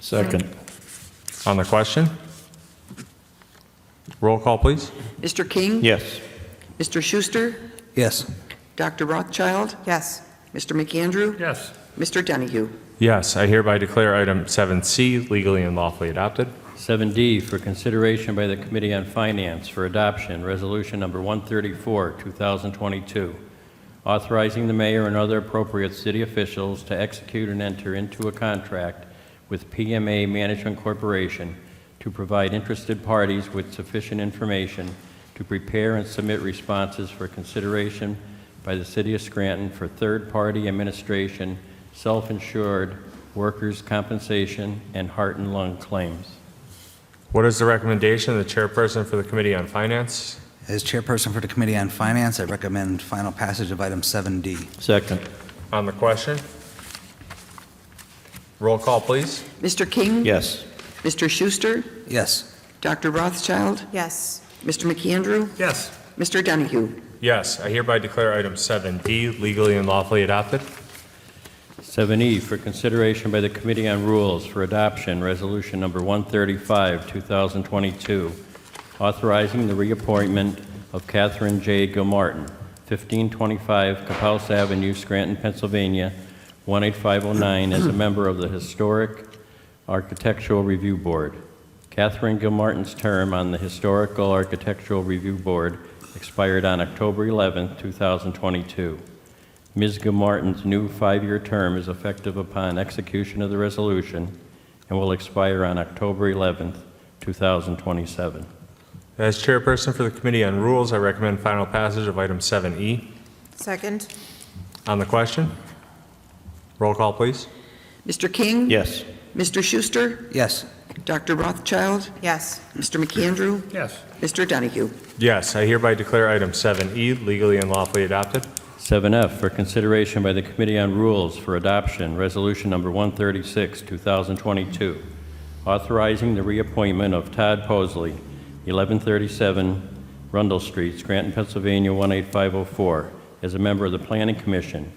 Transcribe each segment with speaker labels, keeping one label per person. Speaker 1: Second.
Speaker 2: On the question? Roll call, please.
Speaker 3: Mr. King?
Speaker 1: Yes.
Speaker 3: Mr. Schuster?
Speaker 4: Yes.
Speaker 3: Dr. Rothschild?
Speaker 5: Yes.
Speaker 3: Mr. McAndrew?
Speaker 6: Yes.
Speaker 3: Mr. Donahue?
Speaker 2: Yes, I hereby declare item 7C legally and lawfully adopted.
Speaker 1: 7D for consideration by the Committee on Finance for adoption, Resolution Number 134, 2022, authorizing the mayor and other appropriate city officials to execute and enter into a contract with PMA Management Corporation to provide interested parties with sufficient information to prepare and submit responses for consideration by the city of Scranton for third-party administration, self-insured, workers' compensation, and heart and lung claims.
Speaker 2: What is the recommendation of the chairperson for the Committee on Finance?
Speaker 4: As chairperson for the Committee on Finance, I recommend final passage of item 7D.
Speaker 1: Second.
Speaker 2: On the question? Roll call, please.
Speaker 3: Mr. King?
Speaker 1: Yes.
Speaker 3: Mr. Schuster?
Speaker 4: Yes.
Speaker 3: Dr. Rothschild?
Speaker 5: Yes.
Speaker 3: Mr. McAndrew?
Speaker 6: Yes.
Speaker 3: Mr. Donahue?
Speaker 2: Yes, I hereby declare item 7D legally and lawfully adopted.
Speaker 1: 7E E for consideration by the Committee on Rules for Adoption, Resolution Number 135, 2022, authorizing the reappointment of Catherine J. Gilmartin, 1525 Capous Avenue, Scranton, Pennsylvania, 18509, as a member of the Historic Architectural Review Board. Catherine Gilmartin's term on the Historical Architectural Review Board expired on October 11, 2022. Ms. Gilmartin's new five-year term is effective upon execution of the resolution and will expire on October 11th, 2027.
Speaker 2: As chairperson for the Committee on Rules, I recommend final passage of item 7E.
Speaker 5: Second?
Speaker 2: On the question? Roll call, please.
Speaker 3: Mr. King?
Speaker 1: Yes.
Speaker 3: Mr. Schuster?
Speaker 4: Yes.
Speaker 3: Dr. Rothschild?
Speaker 5: Yes.
Speaker 3: Mr. McAndrew?
Speaker 6: Yes.
Speaker 3: Mr. Donahue?
Speaker 2: Yes, I hereby declare item 7E legally and lawfully adopted.
Speaker 1: 7F for consideration by the Committee on Rules for Adoption, Resolution Number 136, 2022, authorizing the reappointment of Todd Posley, 1137 Rundle Street, Scranton, Pennsylvania, 18504, as a member of the Planning Commission.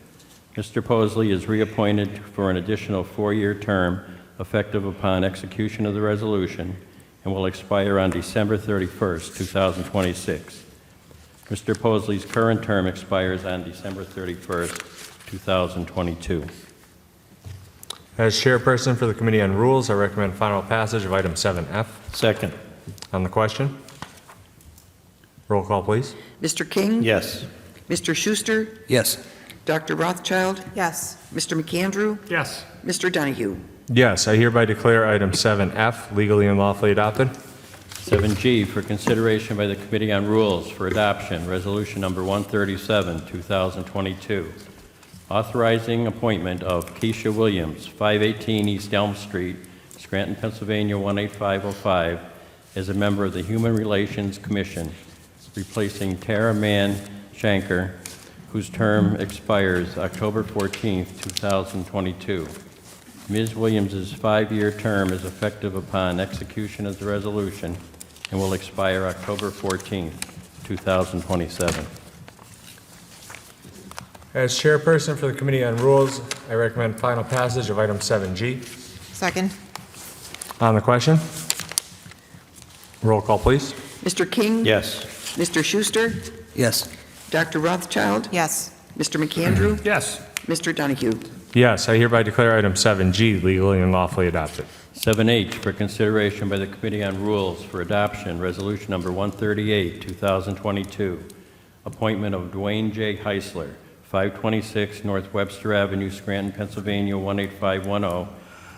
Speaker 1: Mr. Posley is reappointed for an additional four-year term effective upon execution of the resolution and will expire on December 31st, 2026. Mr. Posley's current term expires on December 31st, 2022.
Speaker 2: As chairperson for the Committee on Rules, I recommend final passage of item 7F.
Speaker 1: Second.
Speaker 2: On the question? Roll call, please.
Speaker 3: Mr. King?
Speaker 1: Yes.
Speaker 3: Mr. Schuster?
Speaker 4: Yes.
Speaker 3: Dr. Rothschild?
Speaker 5: Yes.
Speaker 3: Mr. McAndrew?
Speaker 6: Yes.
Speaker 3: Mr. Donahue?
Speaker 2: Yes, I hereby declare item 7F legally and lawfully adopted.
Speaker 1: 7G for consideration by the Committee on Rules for Adoption, Resolution Number 137, 2022, authorizing appointment of Keisha Williams, 518 East Elm Street, Scranton, Pennsylvania, 18505, as a member of the Human Relations Commission, replacing Tara Mann Shanker, whose term expires October 14, 2022. Ms. Williams's five-year term is effective upon execution of the resolution and will expire October 14, 2027.
Speaker 2: As chairperson for the Committee on Rules, I recommend final passage of item 7G.
Speaker 5: Second?
Speaker 2: On the question? Roll call, please.
Speaker 3: Mr. King?
Speaker 1: Yes.
Speaker 3: Mr. Schuster?
Speaker 4: Yes.
Speaker 3: Dr. Rothschild?
Speaker 5: Yes.
Speaker 3: Mr. McAndrew?
Speaker 6: Yes.
Speaker 3: Mr. Donahue?
Speaker 2: Yes, I hereby declare item 7G legally and lawfully adopted.
Speaker 1: 7H for consideration by the Committee on Rules for Adoption, Resolution Number 138, 2022, appointment of Dwayne J. Heisler, 526 North Webster Avenue, Scranton, Pennsylvania, 18510, oh,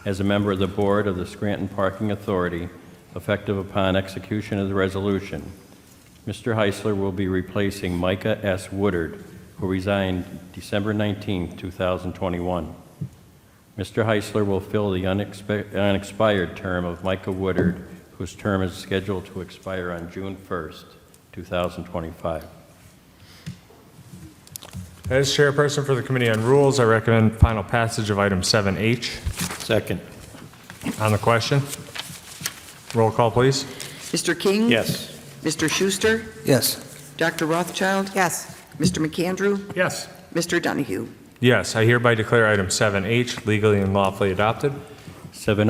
Speaker 1: as a member of the Board of the Scranton Parking Authority, effective upon execution of the resolution. Mr. Heisler will be replacing Micah S. Woodard, who resigned December 19, 2021. Mr. Heisler will fill the unexpe- unexpired term of Micah Woodard, whose term is scheduled to expire on June 1st, 2025.
Speaker 2: As chairperson for the Committee on Rules, I recommend final passage of item 7H.
Speaker 1: Second.
Speaker 2: On the question? Roll call, please.
Speaker 3: Mr. King?
Speaker 1: Yes.
Speaker 3: Mr. Schuster?
Speaker 4: Yes.
Speaker 3: Dr. Rothschild?
Speaker 5: Yes.
Speaker 3: Mr. McAndrew?
Speaker 6: Yes.
Speaker 3: Mr. Donahue?
Speaker 2: Yes, I hereby declare item 7H legally and lawfully adopted.